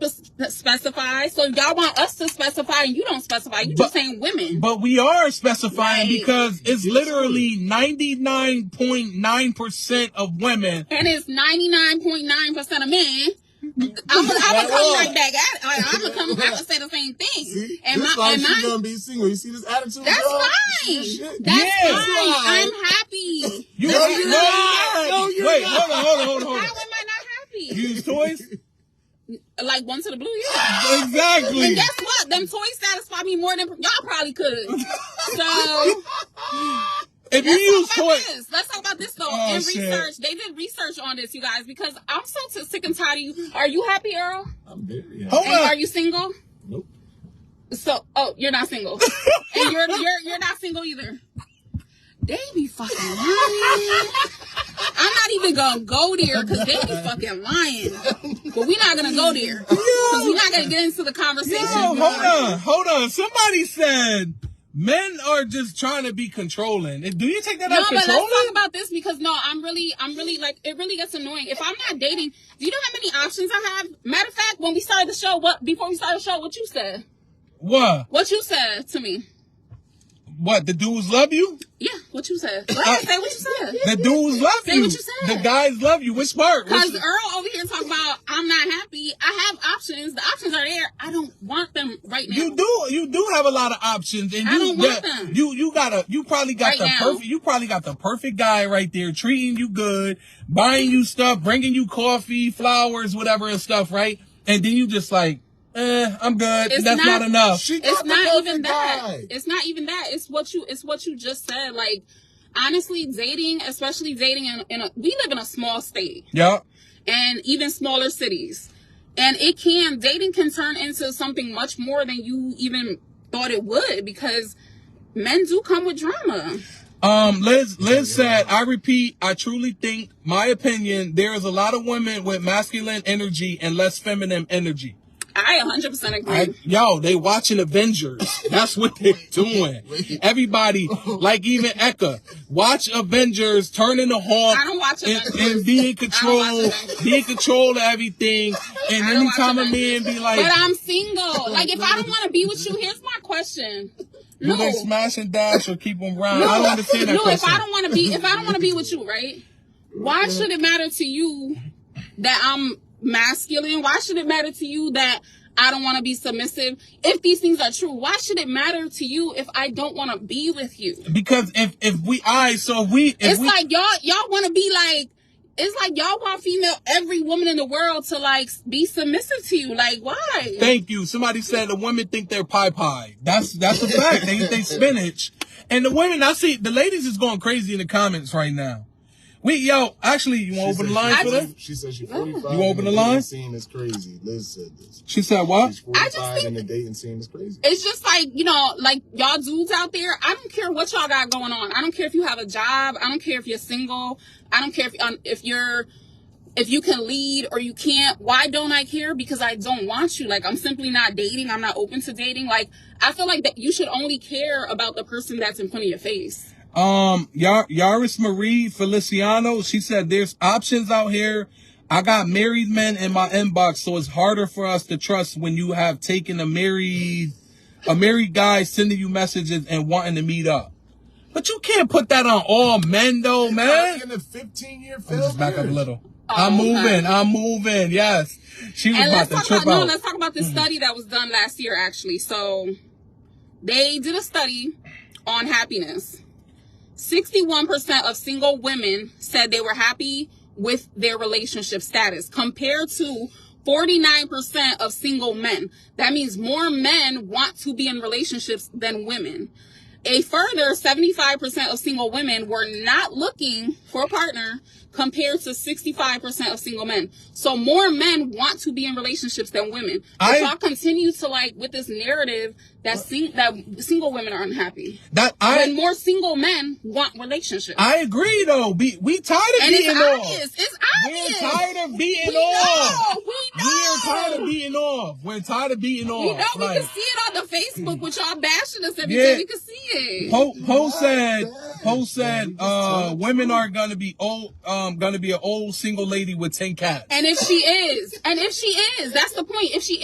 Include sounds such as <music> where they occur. spe- specify. So y'all want us to specify, and you don't specify. You But- just saying women. But we are specifying Right. because it's literally 99.9% of women. and it's ninety nine point nine percent of men. Mm-hmm. I'm gonna I'm gonna come right back at it. Like, I'm gonna <laughs> come. I'm gonna say the same thing. See, and this my why and she my. gonna be single. You see this attitude? That's girl? fine. Shit. That's Yeah. fine. Why? I'm happy. You No, are you're not. not. No, you're Wait, not. hold on, hold on, <laughs> hold on, How am I <laughs> hold on. not happy? You use toys? like one to the blue, yeah. And Exactly. guess what? Them toys satisfy me more than y'all probably <laughs> could. So If you let's use talk about toys, this. Let's talk about this though. Oh, in shit. research, they did research on this, you guys, because I'm so t- sick and tired of you. Are you happy, Earl? <laughs> I'm very Hold happy. And up. are you single? Nope. So, oh, you're not single, <laughs> and you're you're you're not single either. They be fucking lying. I'm not even gonna go there because they be fucking lying. But we're not gonna go there because we're not gonna get into the conversation. Yo, hold on, hold on. Somebody said men are just trying to be controlling. Do you take that No, as but let's talk controlling? about this because no, I'm really, I'm really like it really gets annoying. If I'm not dating, do you know how many options I have? Matter of fact, when we started the show, what before we started the show, what you said, What? what you said to me, What? The dudes love you? yeah, what you said. Go ahead, say what you said. The dudes love Say you. what you said. The guys love you. Which part? Cause Which, Earl over here talking about I'm not happy. I have options. The options are there. I don't want them right now. you do you do have a lot of options and I you don't want the- them. you you got a you probably got Right the now. perfect you probably got the perfect guy right there treating you good, buying you stuff, bringing you coffee, flowers, whatever and stuff, right? And then you just like, eh, I'm good. It's That's not, not- enough. She got It's the not even perfect that. guy. It's not even that. It's what you. It's what you just said. Like honestly, dating, especially dating in, in a, we live in a small state. Yup. and even smaller cities. And it can dating can turn into something much more than you even thought it would because men do come with drama. Um, Liz, Liz said, I repeat, I truly think, my opinion, there is a lot of women with masculine energy and less feminine energy. I 100% agree. I, yo, they watching Avengers. That's what they're doing. Everybody, like even Eka, watch Avengers, turning the horn I don't watch and, Avengers. and be in I don't control, watch Avengers. be in control of everything. And I don't watch anytime a man Avengers. be but like, I'm single. Like if I don't want to be with you, here's my question. do No. they smash and dash or keep them round? I don't understand that no, if question. I don't want to be if I don't want to be with you, right? Why should it matter to you that I'm masculine? Why should it matter to you that I don't want to be submissive? If these things are true, why should it matter to you if I don't want to be with you? because if, if we, I, so if we, if it's we, like y'all y'all want to be like it's like y'all want female every woman in the world to like be submissive to you. Like why? Thank you. Somebody said the women think they're pie pie. That's that's a fact. they think spinach. And the women, I see the ladies is going crazy in the comments right now. We yo, actually, you She want to open said the line she- for them? She said she's 45. You open the and line? dating Scene is crazy. Liz said this. She said what? She's I just 45 think- and the dating scene is crazy. it's just like you know like y'all dudes out there i don't care what y'all got going on i don't care if you have a job i don't care if you're single i don't care if, um, if you're if you can lead or you can't why don't i care because i don't want you like i'm simply not dating i'm not open to dating like i feel like that you should only care about the person that's in front of your face Um, Yar- Yaris Marie Feliciano. She said there's options out here. I got married men in my inbox, so it's harder for us to trust when you have taken a married a married guy sending you messages and wanting to meet up. But you can't put that on all men though, man. In the 15 year Let me just back up a little. Oh, I'm moving. okay. I'm moving. Yes. She was and about let's to talk trip about no out. Mm-hmm. let's talk about this study that was done last year actually so they did a study on happiness 61% of single women said they were happy with their relationship status compared to 49% of single men that means more men want to be in relationships than women a further 75% of single women were not looking for a partner compared to 65% of single men. So more men want to be in relationships than women. But I- y'all continue to like with this narrative that sing, that single women are unhappy. That And I more single men want relationships. I agree though. Be, we tired of and it's beating off. obvious. It's We're obvious. tired of beating we off. know. We know. We're tired of beating off. We're tired of beating off. You know, we Like, can see it on the Facebook with y'all bashing us every Yeah. day. We can see it. Poe Poe said Yes, Poe yes, said yes, uh yes. women are gonna be old uh um gonna be an old single lady with ten cats. And if she is, and if she is, that's the point. If she